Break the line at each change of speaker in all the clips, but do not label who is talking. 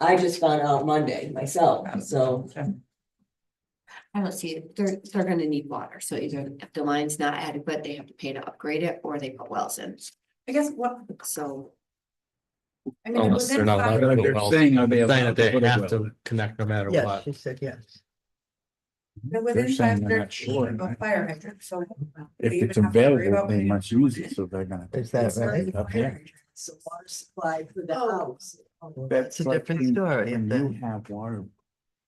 I just found out Monday myself, so
I don't see, it. they're, they're gonna need water, so either if the line's not adequate, they have to pay to upgrade it, or they put wells in,
I guess what,
so.
I mean.
Unless they're
within
not
five-
allowed. to build wells.
saying, are they
Saying
allowed
that
to
they
put a
have
well?
to connect no matter
Yes,
what.
she said yes.
they're
They're
Within
saying
five
they're not
thirty
sure,
of a
right?
fire hydrant, so.
If
they even
it's
have to worry
available,
about
they
putting
must
it in.
use it, so they're gonna.
Is that
It's not
right?
even
Up
fire
here.
hydrant.
it's a water supply for the
Oh.
house.
That's a
like
different
when-
story,
When
if
you
that-
have water.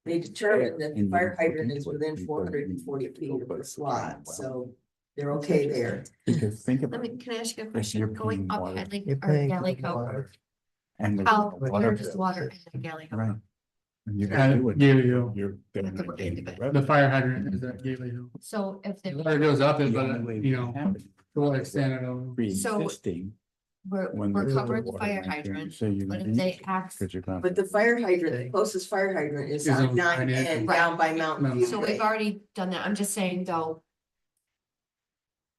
They determined that the
And
fire
then put
hydrant
into
is
it
within
because
four hundred and
you
forty
need to
feet of
put
the
a
slot,
well.
so they're okay there.
Because think
Let
about
me,
it,
can I ask you a
you're
question, going
paying
up
water.
Hadley
You're
or
paying for
Galley
the
Cove?
water.
and. the
How,
But
where
water-
there's
does Oh, water in the Galley
Right.
Cove?
And you're
Uh,
gonna do it.
Galeo.
You're
have
gonna
to look
gain
into it.
The
revenue.
fire hydrant is at Gately Hill.
So if they,
The water goes up it,
The
but,
only way
you
it
know, to
happens
what
is
extent, I don't know.
Pre-existing.
we're,
when
we're
there's a
covering the
water
fire
line there,
hydrant,
So you're.
but
gonna
if
use
they
it,
ask,
'cause you're gonna-
But the fire hydrant,
Okay.
the closest fire hydrant is
Is
on
on
nine
Pine Ave.
and
Right.
down by Mountain
Mountain
View.
so we've already done that, I'm just saying though,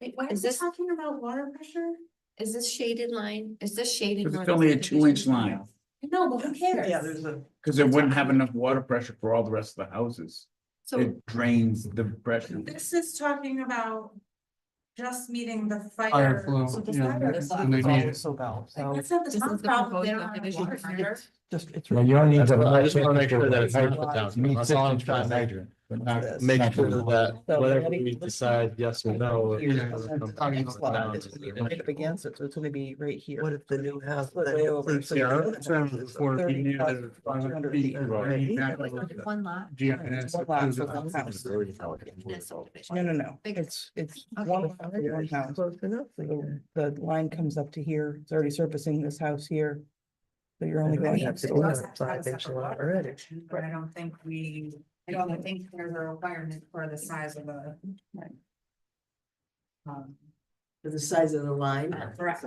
Wait, why
Is
is this
this-
talking about water pressure?
is this shaded line, is this shaded?
Cause
line
it's only a
subdivision?
two inch line,
No, but who cares?
Yeah, there's
a.
cause it wouldn't have enough water pressure for all the rest of the houses.
So,
It drains the pressure.
This is talking about just meeting the fire.
Fire flow,
So
you know,
fire
that's
is
when they need it.
Like, That's not the
this
town's
is the
problem,
proposed
they don't have a
subdivision
water
permit.
hydrant.
Just, it's.
Well, you only need
That's
to.
what I
I
just
just
wanna
wanna make sure that it's not put down. That's all I'm trying to
to.
make sure that whatever we decide, yes or no. it
Yeah.
comes down to the-
Up against it, so it's gonna be right here.
What if the new house?
Way over.
Yeah, I'm trying to afford it, you need
Thirty-five,
to- I would
200
be-
feet.
I need back
like,
over
on
the
one lot.
GIS.
One lot, so one house.
in that subdivision.
No, no, no,
Big-
it's, it's
Okay.
one, house, one house.
Close enough.
The the line comes up to here, it's already surfacing this house here. So you're only
I
going
mean,
up
it's
to
all-
here.
have five inch lot already.
But I don't think we, I don't think there's a requirement for the size of a. Um,
For the size of the line.
correct.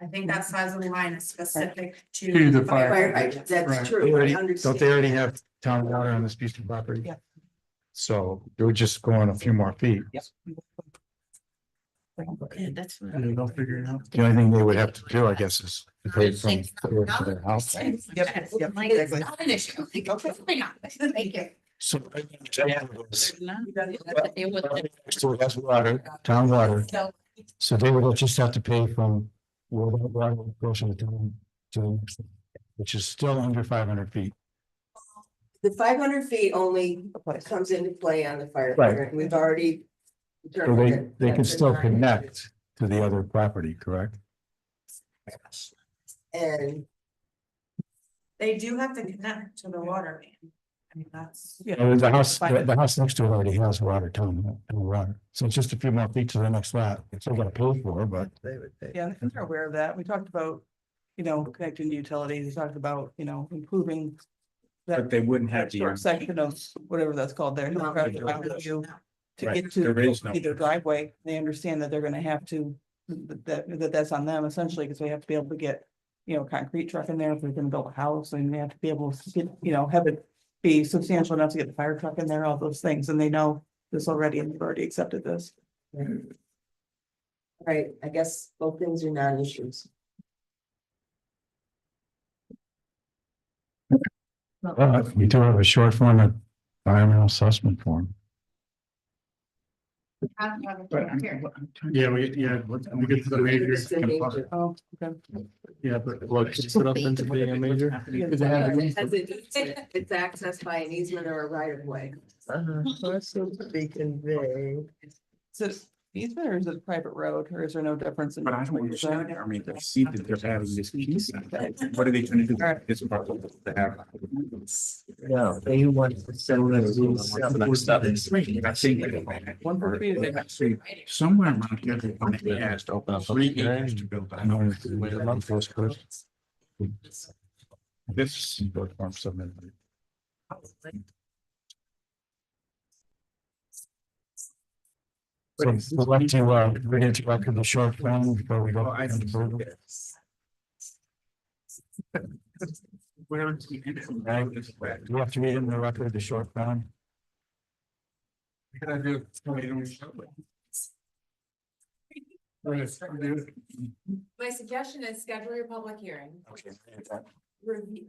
I think that size of the line is specific to.
To the fire
Fire hydrant, that's
Right.
true.
They
I
already- Don't
understand.
they already have town water on this piece of property?
Yeah.
So they would just go on a few more feet.
Okay, that's. fine.
And they'll figure it out.
The only thing they would have to do, I guess, is to pay from to their house.
Yep,
Yep, yep,
Like, it's
exactly.
not an issue. Like,
Okay.
why not? Thank you.
So.
They would-
So that's water, town water. So they would just have to pay from where that water goes from the town to the next, one, which is still under five hundred feet.
The five hundred feet only
Place.
comes into play on the fire
Right.
hydrant. We've already.
So
determined
they,
that
they can
that's
still
not-
connect to the other property, correct?
And
They do have to connect to the water main. I mean, that's.
Yeah.
Oh,
And the house, the the house next to it already has water, town, town water. So it's just a few more feet to the next lot. It's all gonna pay for, but
They would pay.
Yeah, and I think they're aware of that. We talked about, you know, connecting to utilities, we talked about, you know, improving.
But
That
they wouldn't have
that short
the. um,
section of whatever that's called there.
No.
To
Right,
get to
there is no-
either driveway, they understand that they're gonna have to, that, that that's on them essentially, because they have to be able to get. You know, concrete truck in there if they're gonna build a house and they have to be able to get, you know, have it be substantial enough to get the fire truck in there, all those things, and they know. This already, and they've already accepted this.
Right, I guess both things are non-issues.
But we do have a short form of environmental assessment form.
Yeah, we, yeah, we get to the major,
It's the major.
Oh, okay.
yeah, but.
Look, it's set up into being a major.
They have an
As it- It's accessed by an easement or a right of way.
Uh, parcel to be conveyed.
So easement or is it a private road or is there no difference? in
But I don't understand, I mean, I see that they're having this piece, what are they trying to do with this part? They have-
No, they want to sell those.
I think-
One per community.
Actually, Somewhere around here, they only asked to open up three acres to build.
In order to wait a month
a
for this
house.
person.
This.
Short form submitted. So we'd like to, uh, we're going to record the short form before we go.
Oh, I see this. Where is the end of
Right.
this? way?
Do you have to read in the record the short form?
Can I do? Right, I do.
My suggestion is schedule your public hearing.
Okay.
Review,